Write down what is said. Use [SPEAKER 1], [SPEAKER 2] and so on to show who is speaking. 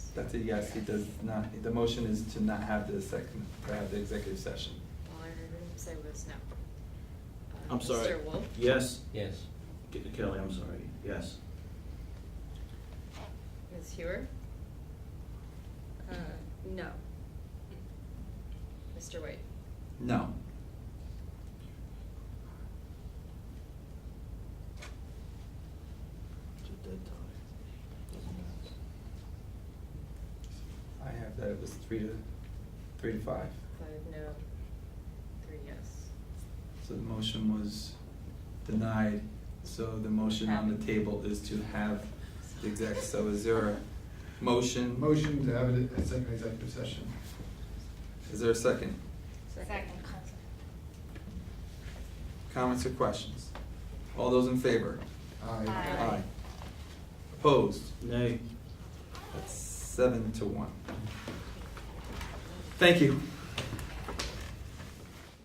[SPEAKER 1] That's a yes, he does not, the motion is to not have the second, to have the executive session.
[SPEAKER 2] All I heard him say was no. Uh,
[SPEAKER 3] I'm sorry.
[SPEAKER 2] Mr. Wolf?
[SPEAKER 3] Yes.
[SPEAKER 4] Yes.
[SPEAKER 3] Ke- Kelly, I'm sorry, yes.
[SPEAKER 2] Ms. Hewer? Uh, No. Mr. White?
[SPEAKER 1] No.
[SPEAKER 3] It's a dead tie. Doesn't matter.
[SPEAKER 1] I have that, it was three to, three to five.
[SPEAKER 2] Five no, three yes.
[SPEAKER 1] So the motion was denied, so the motion on the table is to have the exec, so is there a motion?
[SPEAKER 5] Motion to have a a second executive session.
[SPEAKER 1] Is there a second?
[SPEAKER 2] Second.
[SPEAKER 1] Comments or questions? All those in favor?
[SPEAKER 5] Aye.
[SPEAKER 2] Aye.
[SPEAKER 1] Opposed?
[SPEAKER 3] Nay.
[SPEAKER 1] That's seven to one. Thank you.